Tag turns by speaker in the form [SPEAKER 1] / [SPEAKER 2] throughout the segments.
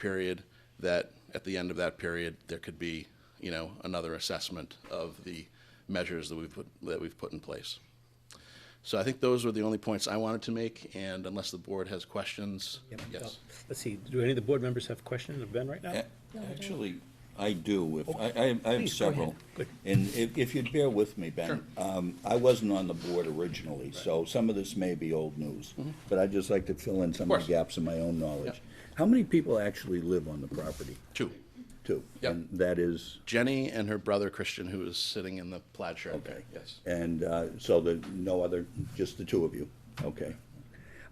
[SPEAKER 1] period, that at the end of that period, there could be, you know, another assessment of the measures that we've put, that we've put in place. So I think those were the only points I wanted to make, and unless the board has questions,
[SPEAKER 2] Yep.
[SPEAKER 1] yes.
[SPEAKER 2] Let's see, do any of the board members have questions of Ben right now?
[SPEAKER 3] A- Actually, I do, if, I, I- I have
[SPEAKER 2] Please, go ahead.
[SPEAKER 3] several.
[SPEAKER 2] Good.
[SPEAKER 3] And if, if you'd bear with me, Ben. um, I wasn't on the board originally, so some of this may be old news,
[SPEAKER 2] Mm-hmm.
[SPEAKER 3] but I'd just like to fill in some of
[SPEAKER 1] course.
[SPEAKER 3] the gaps in my own knowledge. How many people actually live on the property?
[SPEAKER 1] Two,
[SPEAKER 3] Two.
[SPEAKER 1] Yep.
[SPEAKER 3] And that is,
[SPEAKER 1] Jenny and her brother Christian, who is sitting in the plaid shirt.
[SPEAKER 3] okay.
[SPEAKER 1] Yes.
[SPEAKER 3] And uh, so the, no other, just the two of you, okay.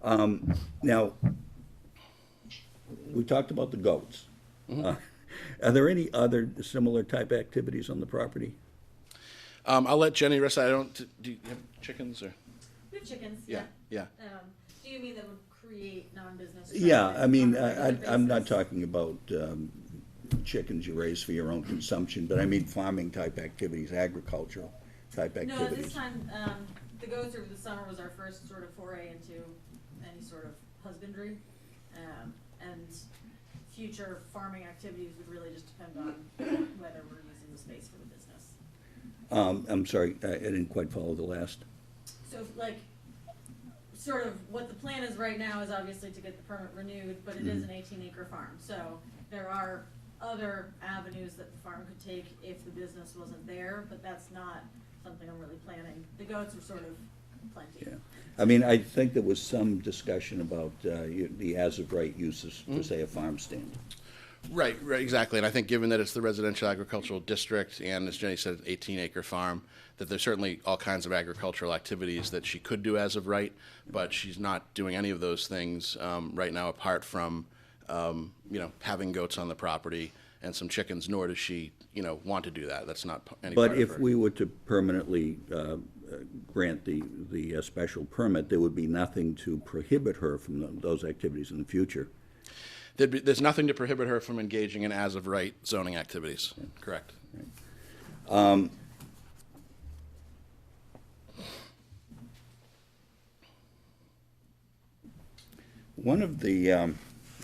[SPEAKER 3] Um, Now, we talked about the goats. Uh, Are there any other similar type activities on the property?
[SPEAKER 1] Um, I'll let Jenny rest. I don't, do you have chickens or?
[SPEAKER 4] We have chickens,
[SPEAKER 1] Yeah,
[SPEAKER 4] yeah.
[SPEAKER 1] yeah.
[SPEAKER 4] Um, do you mean that would create non-business?
[SPEAKER 3] Yeah,
[SPEAKER 4] traffic
[SPEAKER 3] I mean,
[SPEAKER 4] on a
[SPEAKER 3] I, I-
[SPEAKER 4] regular
[SPEAKER 3] I'm not
[SPEAKER 4] basis?
[SPEAKER 3] talking about um, chickens you raise for your own consumption, but I mean farming type activities, agricultural type
[SPEAKER 4] No, at this
[SPEAKER 3] activities.
[SPEAKER 4] time, um, the goats over the summer was our first sort of foray into any sort of husbandry. Um, and future farming activities would really just depend on whether we're using the space for the business.
[SPEAKER 3] Um, I'm sorry, I I didn't quite follow the last.
[SPEAKER 4] So like, sort of what the plan is right now is obviously to get the permit renewed, but it
[SPEAKER 1] Mm-hmm.
[SPEAKER 4] is an eighteen acre farm. So there are other avenues that the farm could take if the business wasn't there, but that's not something I'm really planning. The goats are sort of plenty.
[SPEAKER 3] Yeah, I mean, I think there was some discussion about uh, you- the as-of-right uses for, say, a farm stand.
[SPEAKER 1] Right, right, exactly. And I think given that it's the residential agricultural district and as Jenny said, eighteen acre farm, that there's certainly all kinds of agricultural activities that she could do as of right, but she's not doing any of those things um, right now apart from, um, you know, having goats on the property and some chickens, nor does she, you know, want to do that. That's not p- any part
[SPEAKER 3] But
[SPEAKER 1] of her-
[SPEAKER 3] if we were to permanently uh, uh, grant the, the uh, special permit, there would be nothing to prohibit her from tho- those activities in the future.
[SPEAKER 1] There'd be, there's nothing to prohibit her from engaging in as of right zoning activities. Correct.
[SPEAKER 3] One of the, um,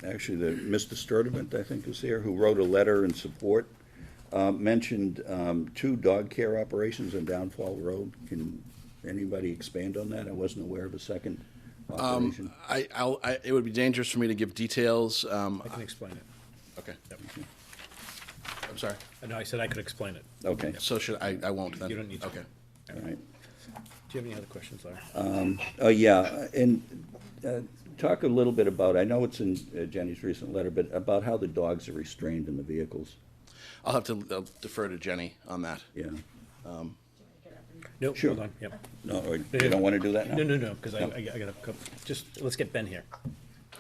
[SPEAKER 3] actually, the, Mr. Sturdivant, I think, is here, who wrote a letter in support, uh, mentioned um, two dog care operations on Downfall Road. Can anybody expand on that? I wasn't aware of a second operation.
[SPEAKER 1] I, I'll, I, it would be dangerous for me to give details. Um,
[SPEAKER 2] I can explain it.
[SPEAKER 1] okay. I'm sorry.
[SPEAKER 2] No, I said I could explain it.
[SPEAKER 3] Okay,
[SPEAKER 1] So should I? I won't then.
[SPEAKER 2] You don't need to.
[SPEAKER 1] Okay.
[SPEAKER 3] all right.
[SPEAKER 2] Do you have any other questions, Larry?
[SPEAKER 3] Oh, yeah, and uh, talk a little bit about, I know it's in uh, Jenny's recent letter, but about how the dogs are restrained in the vehicles.
[SPEAKER 1] I'll have to I'll defer to Jenny on that.
[SPEAKER 3] Yeah.
[SPEAKER 4] Do you want to get up and-
[SPEAKER 2] No,
[SPEAKER 3] Sure.
[SPEAKER 2] hold on, yep.
[SPEAKER 3] No, or you don't want to do that now?
[SPEAKER 2] No, no, no, because I, I I gotta, go- just, let's get Ben here.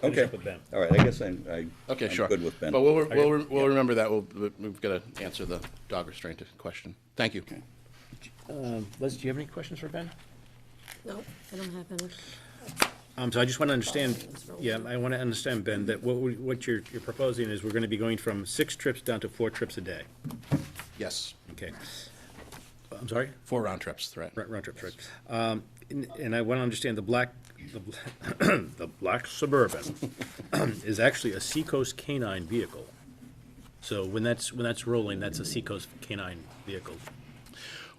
[SPEAKER 2] Finish
[SPEAKER 3] Okay,
[SPEAKER 2] up with Ben.
[SPEAKER 3] all right, I guess I'm, I-
[SPEAKER 1] Okay,
[SPEAKER 3] I'm
[SPEAKER 1] sure.
[SPEAKER 3] good with Ben.
[SPEAKER 1] But we'll, we'll, we'll remember that. We'll, we've got to answer the dog restraint question. Thank you.
[SPEAKER 2] Um, Liz, do you have any questions for Ben?
[SPEAKER 5] No, I don't have any.
[SPEAKER 2] Um, so I just want to understand, yeah, I want to understand, Ben, that what, we- what you're, you're proposing is we're going to be going from six trips down to four trips a day.
[SPEAKER 1] Yes.
[SPEAKER 2] Okay. I'm sorry?
[SPEAKER 1] Four round trips, right?
[SPEAKER 2] Round, round trips, right. Um, and, and I want to understand the black, the, bla- the black Suburban is actually a Seacoast canine vehicle. So when that's, when that's rolling, that's a Seacoast canine vehicle.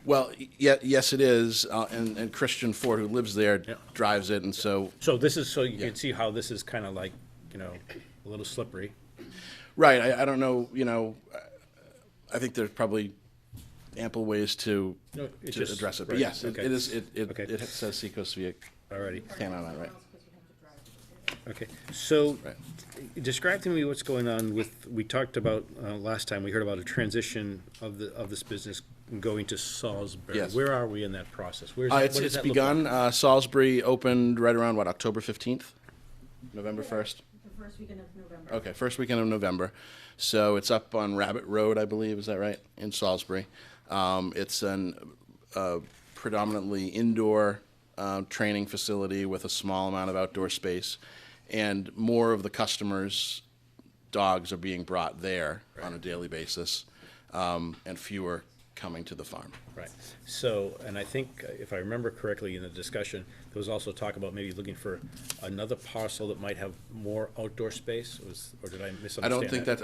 [SPEAKER 1] Well, yeah, yes, it is. Uh, and, and Christian Ford, who lives there,
[SPEAKER 2] Yeah.
[SPEAKER 1] drives it. And so
[SPEAKER 2] So this is, so you can see how this is kind of like, you know, a little slippery.
[SPEAKER 1] Right. I, I don't know. You know, uh, I think there's probably ample ways to,
[SPEAKER 2] No,
[SPEAKER 1] to
[SPEAKER 2] it just-
[SPEAKER 1] address it. But
[SPEAKER 2] right,
[SPEAKER 1] yes,
[SPEAKER 2] okay.
[SPEAKER 1] it, it is. It it,
[SPEAKER 2] Okay.
[SPEAKER 1] it says Seacoast via
[SPEAKER 2] Alrighty.
[SPEAKER 1] can on that, right?
[SPEAKER 4] Because we have to drive to the city.
[SPEAKER 2] Okay, so
[SPEAKER 1] Right.
[SPEAKER 2] describe to me what's going on with, we talked about, uh, last time, we heard about a transition of the, of this business going to Salisbury.
[SPEAKER 1] Yes.
[SPEAKER 2] Where are we in that process? Where's,
[SPEAKER 1] Uh,
[SPEAKER 2] that-
[SPEAKER 1] it's
[SPEAKER 2] what
[SPEAKER 1] it's
[SPEAKER 2] does that look like?
[SPEAKER 1] begun. Uh, Salisbury opened right around what October fifteenth, November first.
[SPEAKER 4] The first weekend of November.
[SPEAKER 1] Okay, first weekend of November. So it's up on Rabbit Road, I believe. Is that right in Salisbury? Um, it's an uh, predominantly indoor uh, training facility with a small amount of outdoor space, and more of the customers' dogs are being brought there on a daily basis, um, and fewer coming to the farm.
[SPEAKER 2] Right. So, and I think, uh, if I remember correctly in the discussion, there was also talk about maybe looking for another parcel that might have more outdoor space, was, or did I misunderstand
[SPEAKER 1] I don't think
[SPEAKER 2] that?
[SPEAKER 1] that's,